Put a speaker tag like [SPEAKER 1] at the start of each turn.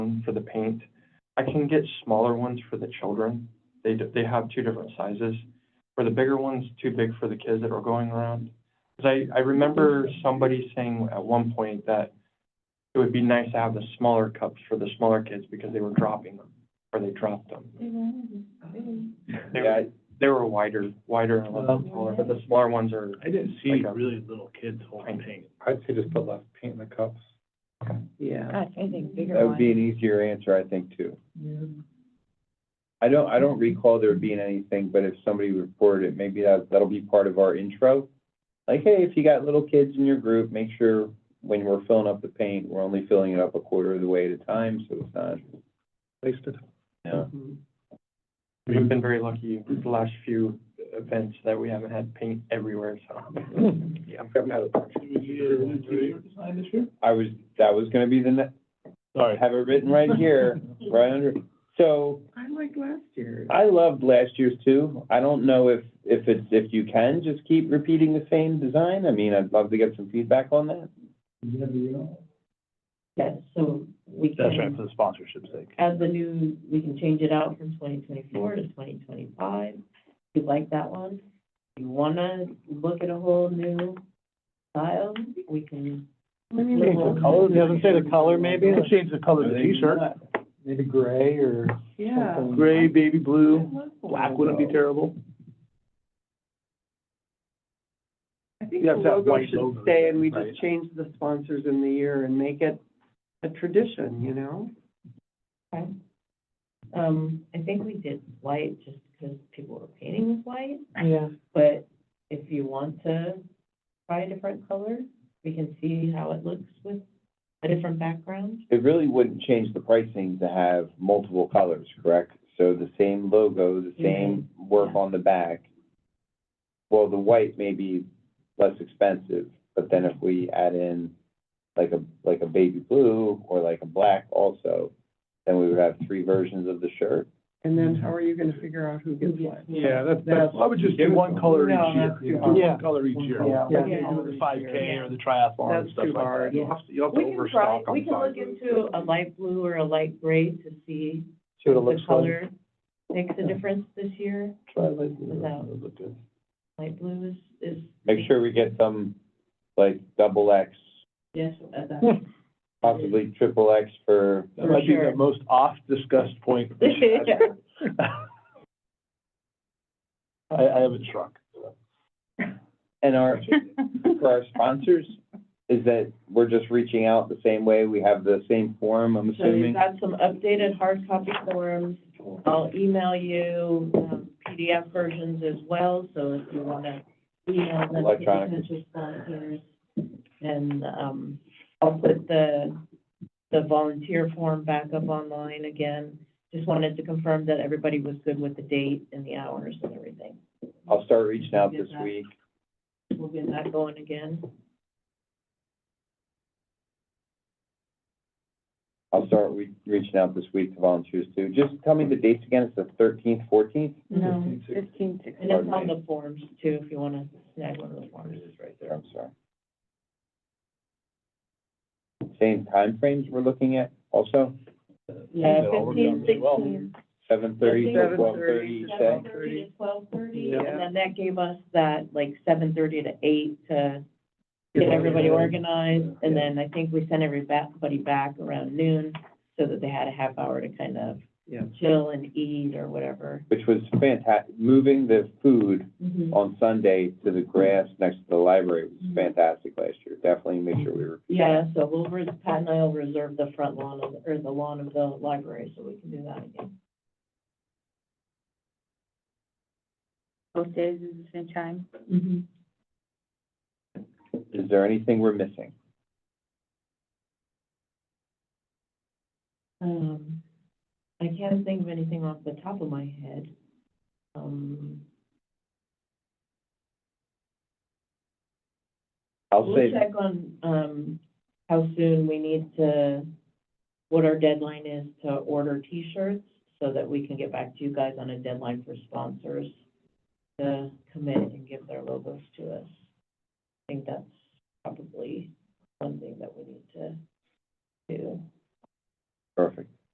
[SPEAKER 1] for the paint. I can get smaller ones for the children. They, d- they have two different sizes. For the bigger ones, too big for the kids that are going around. Because I, I remember somebody saying at one point that it would be nice to have the smaller cups for the smaller kids because they were dropping them, or they dropped them. They,
[SPEAKER 2] Yeah,
[SPEAKER 1] they were wider, wider and a little
[SPEAKER 2] Well-
[SPEAKER 1] bit smaller, but the smaller ones are,
[SPEAKER 3] I didn't see
[SPEAKER 1] Like a-
[SPEAKER 3] really little kids holding paint.
[SPEAKER 4] I'd say just put less paint in the cups.
[SPEAKER 2] Yeah,
[SPEAKER 5] I think
[SPEAKER 2] that
[SPEAKER 5] bigger
[SPEAKER 2] would
[SPEAKER 5] one.
[SPEAKER 2] be an easier answer, I think, too. I don't, I don't recall there being anything, but if somebody reported it, maybe that, that'll be part of our intro. Like, hey, if you got little kids in your group, make sure when we're filling up the paint, we're only filling it up a quarter of the way at a time, so it's not,
[SPEAKER 4] Wasted.
[SPEAKER 2] you know.
[SPEAKER 1] we've been very lucky with the last few events that we haven't had paint everywhere, so.
[SPEAKER 4] Yeah. Haven't had a bunch.
[SPEAKER 2] I was, that was gonna be the, ne- I
[SPEAKER 3] Sorry.
[SPEAKER 2] have it written right here, right under, so.
[SPEAKER 5] I liked last year.
[SPEAKER 2] I loved last year's too. I don't know if, if it's, if you can just keep repeating the same design. I mean, I'd love to get some feedback on that.
[SPEAKER 6] Yes, so we
[SPEAKER 3] That's right,
[SPEAKER 6] can,
[SPEAKER 3] for the sponsorship's sake.
[SPEAKER 6] as the new, we can change it out from twenty twenty-four to twenty twenty-five. You like that one? You wanna look at a whole new style? We can.
[SPEAKER 3] Change the color, it doesn't say the color maybe, Or change the color of the t-shirt.
[SPEAKER 4] Maybe gray or
[SPEAKER 5] Yeah.
[SPEAKER 4] something.
[SPEAKER 3] Gray, baby blue, black wouldn't be terrible.
[SPEAKER 5] I think
[SPEAKER 3] You
[SPEAKER 5] the
[SPEAKER 3] have to have
[SPEAKER 5] logo
[SPEAKER 3] white
[SPEAKER 5] should
[SPEAKER 3] logo,
[SPEAKER 5] stay and we just
[SPEAKER 3] right?
[SPEAKER 5] change the sponsors in the year and make it a tradition, you know?
[SPEAKER 6] Um, I think we did white just because people were painting with white,
[SPEAKER 5] Yeah.
[SPEAKER 6] but if you want to try a different color, we can see how it looks with a different background.
[SPEAKER 2] It really wouldn't change the pricing to have multiple colors, correct? So the same logo, the same work
[SPEAKER 6] Yeah.
[SPEAKER 2] on the back. Well, the white may be less expensive, but then if we add in like a, like a baby blue or like a black also, then we would have three versions of the shirt.
[SPEAKER 5] And then how are you gonna figure out who gets what?
[SPEAKER 3] Yeah, that's,
[SPEAKER 5] that's-
[SPEAKER 3] I would just do one color each year. Do
[SPEAKER 4] Yeah.
[SPEAKER 3] one color each year.
[SPEAKER 5] Yeah.
[SPEAKER 3] Like
[SPEAKER 5] Yeah.
[SPEAKER 3] you do with The five K or the triathlon and
[SPEAKER 5] That's
[SPEAKER 3] stuff
[SPEAKER 5] too
[SPEAKER 3] like that.
[SPEAKER 5] hard.
[SPEAKER 3] You'll have to, you'll have
[SPEAKER 6] We
[SPEAKER 3] to
[SPEAKER 6] can try,
[SPEAKER 3] overstock
[SPEAKER 6] we
[SPEAKER 3] on
[SPEAKER 6] can look
[SPEAKER 3] sizes.
[SPEAKER 6] into a light blue or a light gray to see
[SPEAKER 4] See what it
[SPEAKER 6] if the
[SPEAKER 4] looks like.
[SPEAKER 6] color makes a difference this year.
[SPEAKER 4] Try like.
[SPEAKER 6] Without. Light blue is, is.
[SPEAKER 2] Make sure we get some, like, double X,
[SPEAKER 6] Yes, uh, that-
[SPEAKER 2] possibly triple X for,
[SPEAKER 3] That might be
[SPEAKER 6] sure.
[SPEAKER 3] the most off-discussed point. we've had. I, I haven't shrunk.
[SPEAKER 2] and our, for our sponsors, is that we're just reaching out the same way, we have the same form, I'm
[SPEAKER 6] So you've
[SPEAKER 2] assuming?
[SPEAKER 6] got some updated hard copy forms. I'll email you um, PDF versions as well, so if you want to email them to
[SPEAKER 2] Electronic.
[SPEAKER 6] potential sponsors. And, um, I'll put the, the volunteer form back up online again. Just wanted to confirm that everybody was good with the date and the hours and everything.
[SPEAKER 2] I'll start reaching out this week.
[SPEAKER 6] We'll get that going again.
[SPEAKER 2] I'll start re- reaching out this week to volunteers too. Just tell me the dates again, it's the thirteenth, fourteenth?
[SPEAKER 5] No,
[SPEAKER 6] And it's on the forms too, if you want to snag one of the forms.
[SPEAKER 2] Right there, I'm sorry. Same timeframes we're looking at also,
[SPEAKER 6] Yeah,
[SPEAKER 3] That all worked out
[SPEAKER 6] fifteen,
[SPEAKER 3] really well.
[SPEAKER 6] sixteen.
[SPEAKER 2] seven thirty to twelve
[SPEAKER 5] 7:30,
[SPEAKER 2] thirty, you say?
[SPEAKER 6] Seven thirty to twelve thirty,
[SPEAKER 5] Yeah.
[SPEAKER 6] and then that gave us that, like, seven thirty to eight to get everybody organized, and then I think we sent everybody back around noon, so that they had a half hour to kind of
[SPEAKER 5] Yeah.
[SPEAKER 6] chill and eat or whatever.
[SPEAKER 2] which was fantastic. Moving the food
[SPEAKER 7] Mm-hmm.
[SPEAKER 2] on Sunday to the grass next to the library was
[SPEAKER 6] Mhm.
[SPEAKER 2] fantastic last year. Definitely make sure we were,
[SPEAKER 6] Yeah, so we'll, res- Pat and I'll reserve the front lawn of, or the lawn of the library, so we can do that again.
[SPEAKER 7] both days at the same time.
[SPEAKER 6] Mm-hmm.
[SPEAKER 2] is there anything we're missing?
[SPEAKER 6] Um, I can't think of anything off the top of my head. Um,
[SPEAKER 2] I'll
[SPEAKER 6] We'll
[SPEAKER 2] say,
[SPEAKER 6] check on, um, how soon we need to, what our deadline is to order T-shirts, so that we can get back to you guys on a deadline for sponsors to commit and give their logos to us. I think that's probably one thing that we need to do.
[SPEAKER 2] perfect.